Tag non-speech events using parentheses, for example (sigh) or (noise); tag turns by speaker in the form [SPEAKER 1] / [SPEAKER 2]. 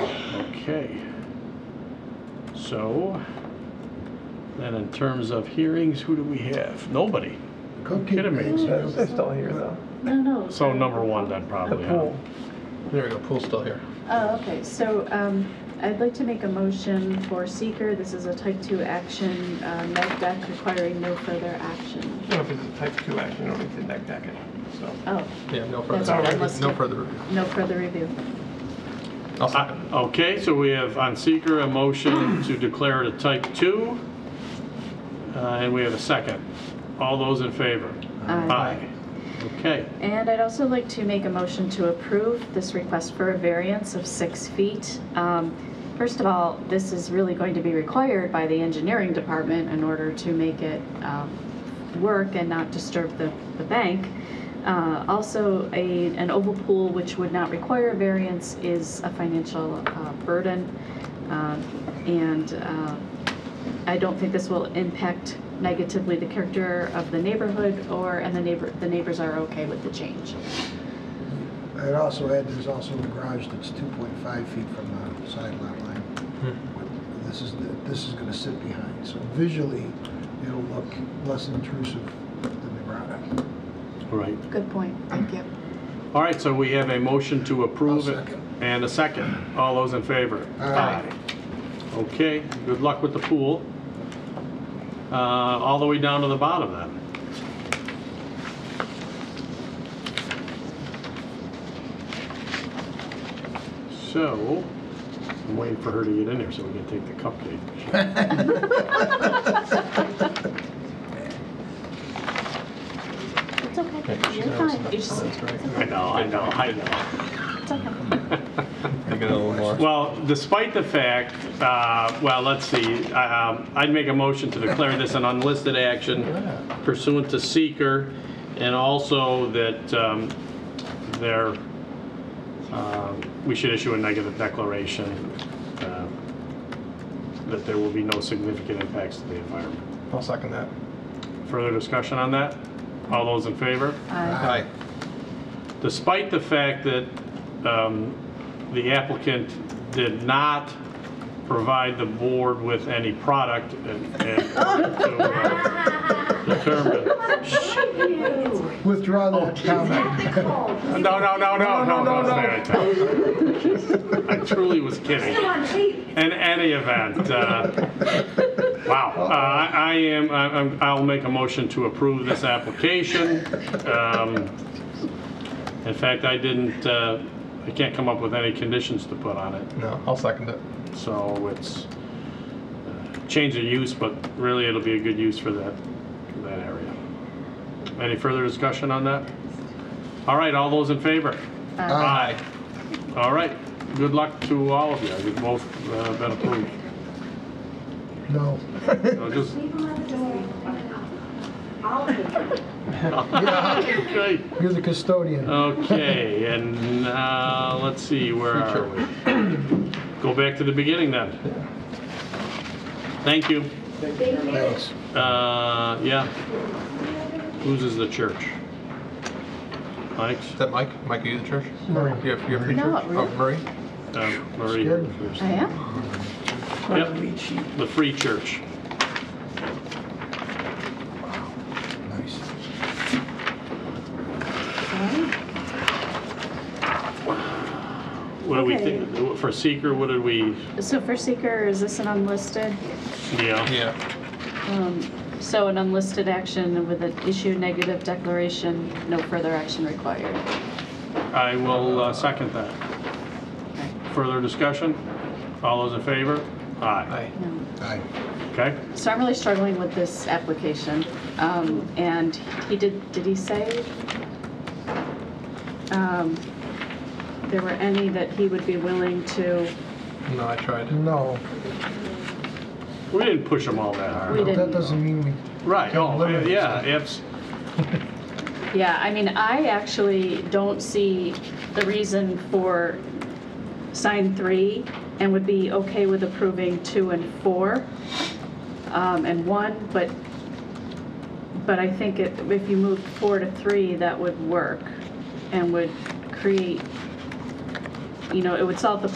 [SPEAKER 1] Okay. So, then in terms of hearings, who do we have? Nobody. Kidding me.
[SPEAKER 2] They're still here though.
[SPEAKER 3] No, no.
[SPEAKER 1] So
[SPEAKER 3] uh,
[SPEAKER 1] number one then
[SPEAKER 2] The
[SPEAKER 1] probably, huh?
[SPEAKER 2] pool.
[SPEAKER 4] There we go, pool's still here.
[SPEAKER 3] Oh, okay, so um, I'd like to make a motion for seeker. This is a type 2 action, uh, med deck requiring no further action.
[SPEAKER 2] No, if it's a type two action, you don't need to neg deck it, so.
[SPEAKER 3] Oh,
[SPEAKER 4] Yeah, no
[SPEAKER 3] That's
[SPEAKER 4] further,
[SPEAKER 3] all right, let's
[SPEAKER 4] no
[SPEAKER 3] do-
[SPEAKER 4] further review.
[SPEAKER 3] no further review.
[SPEAKER 4] I'll
[SPEAKER 1] Uh,
[SPEAKER 4] second.
[SPEAKER 1] Okay, so we have on seeker a motion to declare it a type 2. Uh, And we have a second. All those in favor?
[SPEAKER 3] Aye.
[SPEAKER 1] Aye. Okay.
[SPEAKER 3] And I'd also like to make a motion to approve this request for a variance of six feet. Um, First of all, this is really going to be required by the engineering department in order to make it um, work and not disturb the, the bank. Uh, Also, a, an oval pool which would not require a variance is a financial uh, burden. Um, And uh, I don't think this will impact negatively the character of the neighborhood or, and the neighbor, the neighbors are okay with the change.
[SPEAKER 5] I'd also add, there's also a garage that's 2.5 feet from the side lot line. This is, the- this is gonna sit behind, so visually, it'll look less intrusive than the garage.
[SPEAKER 1] All right.
[SPEAKER 3] Good point, thank you.
[SPEAKER 1] All right, so we have a motion to approve
[SPEAKER 5] I'll
[SPEAKER 1] it.
[SPEAKER 5] second.
[SPEAKER 1] And a second. All those in favor?
[SPEAKER 5] Aye.
[SPEAKER 1] Okay, good luck with the pool. Uh, All the way down to the bottom then. So, I'm waiting for her to get in here so we can take the cupcake. (laughs)
[SPEAKER 3] It's okay,
[SPEAKER 2] Yeah, she
[SPEAKER 3] you're
[SPEAKER 2] knows.
[SPEAKER 3] fine, you just,
[SPEAKER 2] That's right.
[SPEAKER 1] I know, I know, I know.
[SPEAKER 3] it's okay.
[SPEAKER 2] Make it a little more.
[SPEAKER 1] Well, despite the fact, uh, well, let's see, um, I'd make a motion to declare this an unlisted action pursuant to seeker, and also that um, there, um, we should issue a negative declaration uh, that there will be no significant impacts to the environment.
[SPEAKER 2] I'll second that.
[SPEAKER 1] Further discussion on that? All those in favor?
[SPEAKER 3] Aye.
[SPEAKER 4] Aye.
[SPEAKER 1] despite the fact that um, the applicant did not provide the board with any product and and to uh, determine.
[SPEAKER 5] Withdraw that comment.
[SPEAKER 1] No, no, no, no, no, no, no. I truly was kidding. In any event, uh, wow, Uh, I I am, I- I'm- I'll make a motion to approve this application. Um, In fact, I didn't, uh, I can't come up with any conditions to put on it,
[SPEAKER 2] No, I'll second it.
[SPEAKER 1] so it's uh, change of use, but really it'll be a good use for that, for that area. Any further discussion on that? All right, all those in favor?
[SPEAKER 3] Uh,
[SPEAKER 4] Uh,
[SPEAKER 5] Aye.
[SPEAKER 1] Aye. All right, good luck to all of you. You've both uh, been approved.
[SPEAKER 5] No.
[SPEAKER 1] So just-
[SPEAKER 6] Leave them at the door. I'll take them.
[SPEAKER 1] Okay,
[SPEAKER 5] You're the
[SPEAKER 1] Oh.
[SPEAKER 5] custodian.
[SPEAKER 1] Okay, and uh, let's see, where are we? Go back to the beginning then. Thank you.
[SPEAKER 5] Thanks.
[SPEAKER 1] Uh, Yeah. Loses the church. Thanks.
[SPEAKER 4] Is that Mike? Mike, are you the church?
[SPEAKER 2] Marie.
[SPEAKER 4] You have, you have free
[SPEAKER 3] No,
[SPEAKER 4] church? Oh,
[SPEAKER 3] really.
[SPEAKER 4] Marie?
[SPEAKER 1] Uh, Marie.
[SPEAKER 3] I am?
[SPEAKER 1] Yep, the free church.
[SPEAKER 5] Nice.
[SPEAKER 3] Aye.
[SPEAKER 1] What do we
[SPEAKER 3] Okay.
[SPEAKER 1] think, for seeker, what did we,
[SPEAKER 3] So for seeker, is this an unlisted?
[SPEAKER 1] yeah,
[SPEAKER 4] Yeah.
[SPEAKER 3] Um, So an unlisted action with an issue negative declaration, no further action required.
[SPEAKER 1] I will uh, second that. Further discussion? All those in favor? Aye.
[SPEAKER 4] Aye.
[SPEAKER 3] No.
[SPEAKER 5] Aye.
[SPEAKER 1] Okay?
[SPEAKER 3] So I'm really struggling with this application. Um, And he did, did he say um, there were any that he would be willing to,
[SPEAKER 4] No, I tried.
[SPEAKER 5] No,
[SPEAKER 1] We didn't push them all that hard.
[SPEAKER 3] we
[SPEAKER 5] that
[SPEAKER 3] didn't.
[SPEAKER 5] doesn't mean we,
[SPEAKER 1] Right, oh,
[SPEAKER 5] limit
[SPEAKER 1] yeah, abs,
[SPEAKER 3] Yeah, I mean, I actually don't see the reason for sign three and would be okay with approving two and four um, and one, but, but I think it- if you moved four to three, that would work and would create, you know, it would solve the